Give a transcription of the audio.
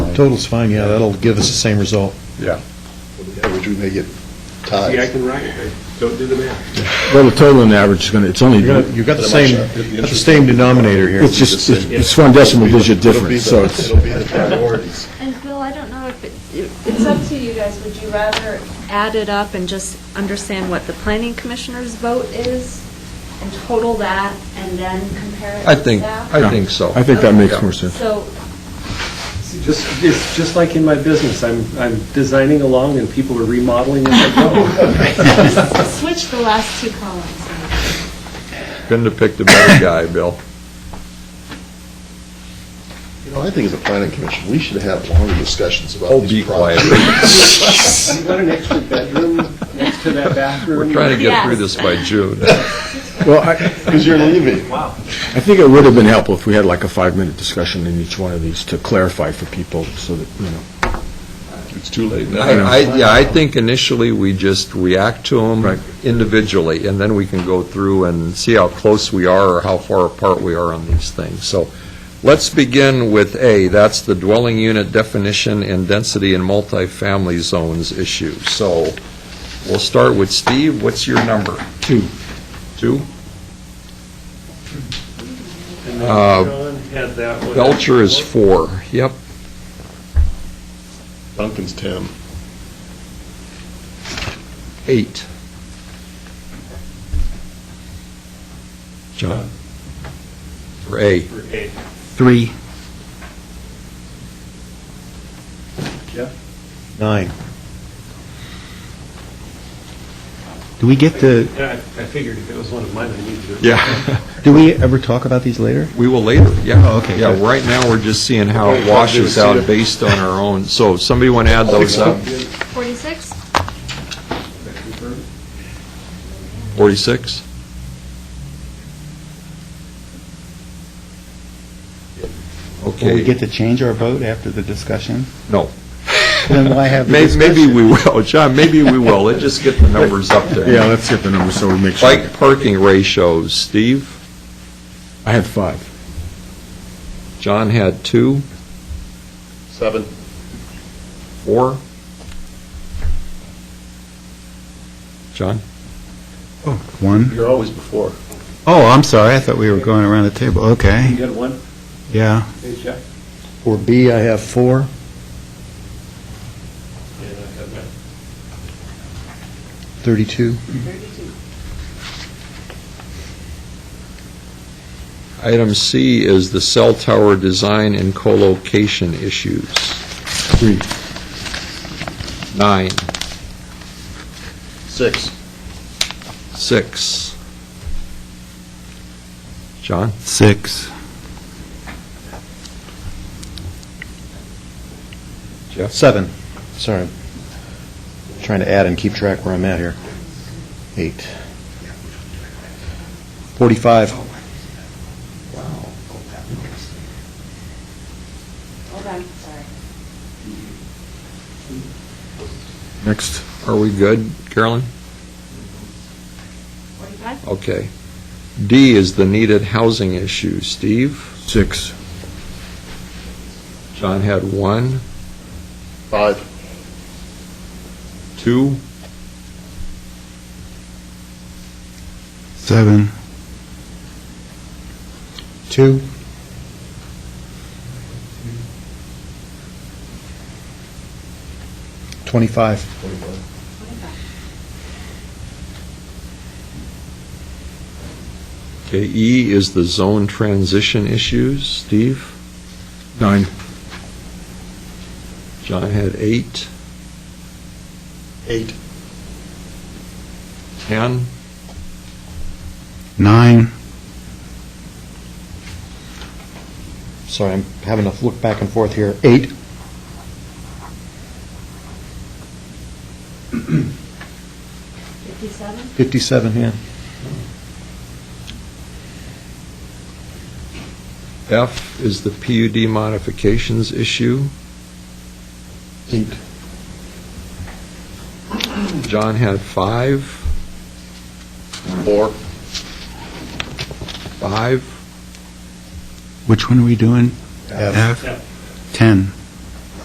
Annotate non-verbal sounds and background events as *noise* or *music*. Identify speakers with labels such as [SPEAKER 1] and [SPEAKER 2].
[SPEAKER 1] fine.
[SPEAKER 2] Total's fine, yeah, that'll give us the same result.
[SPEAKER 1] Yeah.
[SPEAKER 3] Average, we may get
[SPEAKER 4] See, I
[SPEAKER 3] ties.
[SPEAKER 4] can write it, don't do the math.
[SPEAKER 5] Well, the total and average is going to, it's only,
[SPEAKER 2] You've got- You've got the
[SPEAKER 3] But I'm
[SPEAKER 2] same,
[SPEAKER 3] not sure.
[SPEAKER 2] got the same denominator here.
[SPEAKER 5] it's just, it's one decimal digit difference, so it's,
[SPEAKER 3] It'll be the priorities.
[SPEAKER 6] And Bill, I don't know if it, it's up to you guys, would you rather add it up and just understand what the planning commissioner's vote is and total that and then compare it
[SPEAKER 1] I
[SPEAKER 6] to
[SPEAKER 1] think,
[SPEAKER 6] that?
[SPEAKER 1] I think so.
[SPEAKER 5] I think that makes more sense.
[SPEAKER 6] So,
[SPEAKER 7] It's Just, it's just like in my business, I'm, I'm designing along and people are remodeling as I go.
[SPEAKER 6] switch the last two columns.
[SPEAKER 1] *laughs* Couldn't have picked a better guy, Bill.
[SPEAKER 3] You know, I think as a planning commission, we should have longer discussions about
[SPEAKER 1] Oh, be
[SPEAKER 3] these
[SPEAKER 1] quiet.
[SPEAKER 3] projects.
[SPEAKER 7] You got an extra bedroom next to that bathroom?
[SPEAKER 1] We're trying to get through
[SPEAKER 6] Yes.
[SPEAKER 1] this by June.
[SPEAKER 5] well, I,
[SPEAKER 3] Because you're leaving.
[SPEAKER 5] I think it would have been helpful if we had like a five-minute discussion in each one of these to clarify for people so that, you know.
[SPEAKER 3] It's too late
[SPEAKER 1] I, I- yeah, I think initially we just react to
[SPEAKER 5] Right.
[SPEAKER 1] them individually, and then we can go through and see how close we are or how far apart we are on these things. So let's begin with A, that's the dwelling unit definition and density in multifamily zones issue. So we'll start with Steve, what's your number?
[SPEAKER 5] Two.
[SPEAKER 1] Two?
[SPEAKER 7] And then
[SPEAKER 1] Uh,
[SPEAKER 7] John had that one.
[SPEAKER 1] Belcher is four, yep.
[SPEAKER 3] Duncan's 10.
[SPEAKER 1] Eight. John? For A.
[SPEAKER 7] For eight.
[SPEAKER 5] Three.
[SPEAKER 2] Nine.
[SPEAKER 8] Do we get to,
[SPEAKER 7] Yeah, I I figured if it was one of mine, I needed to.
[SPEAKER 1] Yeah.
[SPEAKER 8] do we ever talk about these later?
[SPEAKER 1] We will later, yeah.
[SPEAKER 8] Oh, okay,
[SPEAKER 1] Yeah,
[SPEAKER 8] good.
[SPEAKER 1] right now, we're just seeing how it washes out based on our own. So if somebody want to add those up?
[SPEAKER 6] 46?
[SPEAKER 1] 46?
[SPEAKER 8] Will we
[SPEAKER 1] Okay.
[SPEAKER 8] get to change our vote after the discussion?
[SPEAKER 1] No.
[SPEAKER 8] Then why have the
[SPEAKER 1] May- Maybe
[SPEAKER 8] discussion?
[SPEAKER 1] we will, *laughs* John, maybe we will. Let's just get the numbers up there.
[SPEAKER 5] Yeah, let's get the number so we make sure.
[SPEAKER 1] Bike parking ratios, Steve,
[SPEAKER 5] I had five.
[SPEAKER 1] John had two,
[SPEAKER 3] 7.
[SPEAKER 1] four. John?
[SPEAKER 8] Oh, One?
[SPEAKER 3] You're always before.
[SPEAKER 8] Oh, I'm sorry, I thought we were going around the table,
[SPEAKER 7] You
[SPEAKER 8] okay,
[SPEAKER 7] got one,
[SPEAKER 8] yeah.
[SPEAKER 7] hey, Jeff?
[SPEAKER 2] For B, I have four.
[SPEAKER 7] Yeah, I got mine.
[SPEAKER 2] 32.
[SPEAKER 1] Item C is the cell tower design and co-location issues.
[SPEAKER 5] Three.
[SPEAKER 1] Nine,
[SPEAKER 3] 6.
[SPEAKER 1] six. John?
[SPEAKER 8] Six.
[SPEAKER 2] Seven. Sorry. Trying to add and keep track where I'm at here. Eight. 45.
[SPEAKER 6] Hold on, sorry.
[SPEAKER 5] Next.
[SPEAKER 1] Are we good, Carolyn?
[SPEAKER 6] 45?
[SPEAKER 1] Okay. D is the needed housing issue. Steve?
[SPEAKER 5] Six.
[SPEAKER 1] John had one,
[SPEAKER 3] 5.
[SPEAKER 1] two,
[SPEAKER 8] Seven.
[SPEAKER 2] Two. Twenty-five.
[SPEAKER 1] Okay, E is the zone transition issues. Steve?
[SPEAKER 5] Nine.
[SPEAKER 1] John had eight,
[SPEAKER 3] 8.
[SPEAKER 1] 10,
[SPEAKER 8] Nine.
[SPEAKER 2] Sorry, I'm having to look back and forth here. Eight.
[SPEAKER 6] Fifty-seven?
[SPEAKER 2] 57, yeah.
[SPEAKER 1] F is the PUD modifications issue.
[SPEAKER 2] Eight.
[SPEAKER 1] John had five,
[SPEAKER 3] 4.
[SPEAKER 1] five,
[SPEAKER 8] Which one are we doing?
[SPEAKER 2] F.
[SPEAKER 8] Ten.